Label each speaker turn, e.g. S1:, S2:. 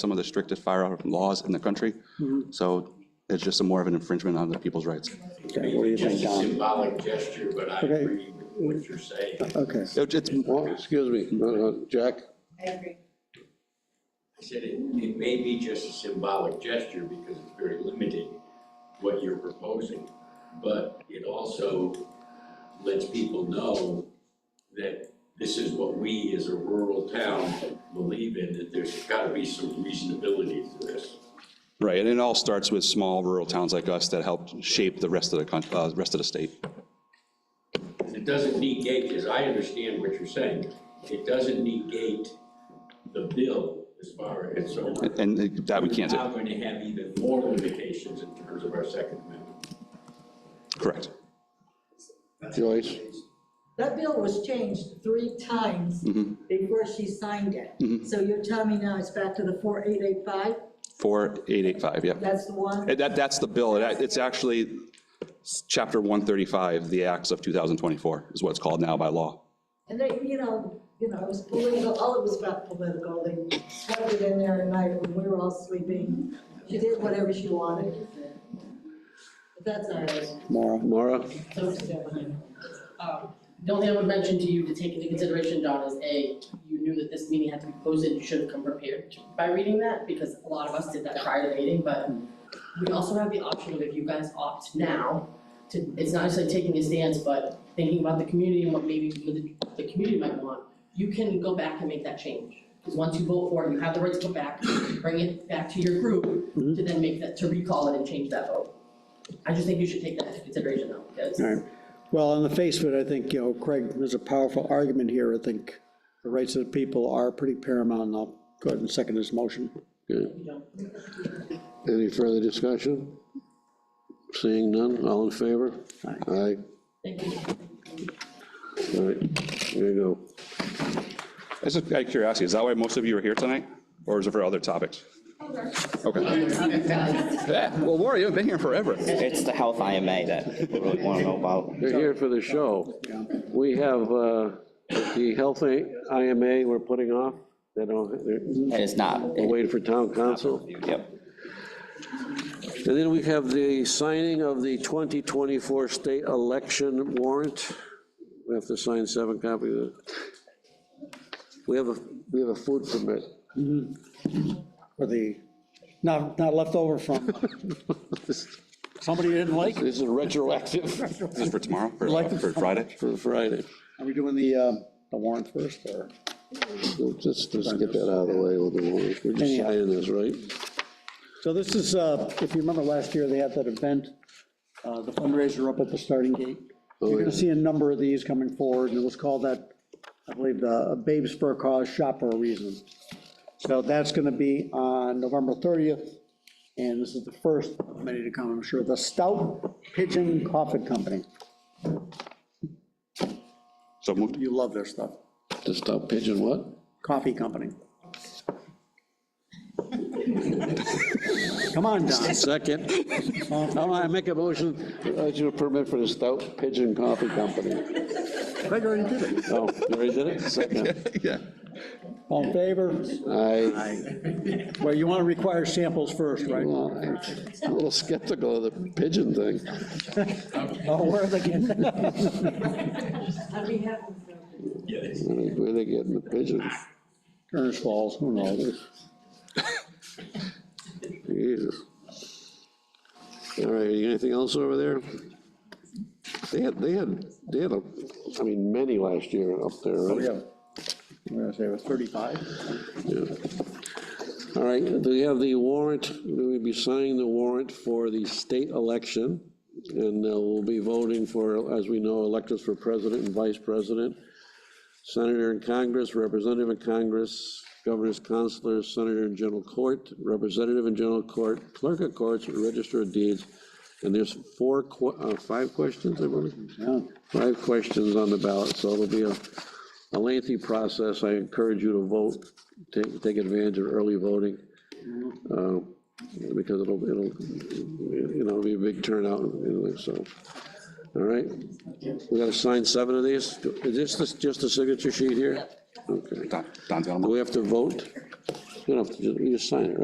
S1: some of the strictest firearm laws in the country. So it's just a more of an infringement on the people's rights.
S2: Okay, what do you think,
S3: Just a
S2: Don?
S3: symbolic gesture, but I
S2: Okay. Uh,
S3: agree with what you're saying. I
S2: Okay,
S1: It- It's,
S4: Well, excuse me, uh, uh, Jack,
S2: uh,
S3: said it, it may be just a symbolic gesture because it's very limiting what you're proposing. But it also lets people know that this is what we as a rural town believe in, that there's gotta be some reasonability to this.
S1: right, and it all starts with small rural towns like us that helped shape the rest of the, coun- uh, rest of the state.
S3: It doesn't negate, because I understand what you're saying, it doesn't negate the bill as far as, so. we're-
S1: And that we can't
S3: We're
S1: do,
S3: now going to have even more limitations in terms of our Second Amendment.
S1: correct.
S4: Joyce,
S5: That bill was changed three times before she signed it. So you're telling me now it's back to the 4885?
S1: 4885, yeah.
S5: That's the one?
S1: And That, that's the bill. It- It's actually Chapter 135, the Acts of 2024 is what it's called now by law.
S5: And they, you know, you know, it was political, all it was about political. They swept it in there at night when we were all sleeping. She did whatever she wanted. But that's all right.
S2: Maura,
S4: Mara,
S5: Don't stand behind her.
S6: Um, The only thing I would mention to you to take into consideration, Don, is A, you knew that this meeting had to be posted, you should have come prepared by reading that, because a lot of us did that prior to the meeting, but we also have the option of if you guys opt now, to, it's not necessarily taking a stance, but thinking about the community and what maybe the, the community might want, you can go back and make that change. Because once you vote for it, you have the right to come back, bring it back to your group,
S2: Mm-hmm.
S6: to then make that, to recall it and change that vote. I just think you should take that into consideration though, because.
S2: all right. Well, on the face of it, I think, you know, Craig, there's a powerful argument here. I think the rights of the people are pretty paramount, and I'll go ahead and second this motion.
S6: you know,
S4: any further discussion? Seeing none, all in favor?
S2: Aye.
S4: Aye,
S6: Thank you.
S4: all right, there you
S1: Just out of curiosity, is that why most of you are here tonight? Or is it for other topics? Okay. Yeah, Well, Laura, you haven't been here forever.
S7: It's the health IMA that people really want to know about.
S4: go. They're here for the show. We have uh, the health IMA we're putting off, they don't, they're
S7: And it's not.
S4: waiting for town council.
S7: Yep.
S4: And then we have the signing of the 2024 state election warrant. We have to sign seven copies of it. We have a, we have a food permit.
S2: For the, not, not left over from, somebody you didn't like?
S4: This is retroactive
S1: Is this for tomorrow, for
S2: Like-
S1: for Friday?
S4: for Friday.
S2: Are we doing the, uh, the warrant first, or?
S4: So Just, just get that out of the way, we'll do one. We're just
S2: Anyhow.
S4: signing this, right?
S2: So this is, uh, if you remember last year, they had that event, uh, the fundraiser up at the starting gate. You're gonna see a number of these coming forward, and it was called that, I believe, the Babes for a Cause Shop for a Reason. So that's gonna be on November 30th, and this is the first of many to come, I'm sure, the Stout Pigeon Coffee Company.
S1: So moved.
S2: You love their stuff,
S4: To stop pigeon what?
S2: coffee company. Come on, Don.
S4: Second. All right, I make a motion, uh, to permit for the Stout Pigeon Coffee Company.
S2: Craig already did it.
S4: Oh, you already did it? Second.
S1: Yeah.
S2: All in favor?
S4: Aye.
S2: Well, you want to require samples first, right?
S4: Well, I'm A little skeptical of the pigeon thing.
S2: Oh, where are they getting?
S5: I'd be happy to.
S4: Where they getting the pigeons?
S2: Turner's Falls, who knows?
S4: Jesus. All right, anything else over there? They had, they had, they had, a I mean, many last year up there,
S2: Oh,
S4: right?
S2: yeah. I'm gonna say it was 35.
S4: Yeah. All right, we have the warrant, we'll be signing the warrant for the state election. And uh, we'll be voting for, as we know, electors for president and vice president, senator in Congress, representative in Congress, governors, consulars, senator in general court, representative in general court, clerk of courts, register of deeds. And there's four, que- uh, five questions, I believe?
S2: Yeah.
S4: five questions on the ballot, so it'll be a a lengthy process. I encourage you to vote, take, take advantage of early voting, uh, because it'll, it'll, you know, be a big turnout, anyway, so. All right, we gotta sign seven of these? Is this the- just the signature sheet here? Okay.
S1: Don- Don's got 'em.
S4: Do we have to vote? enough to just, you just sign it, right?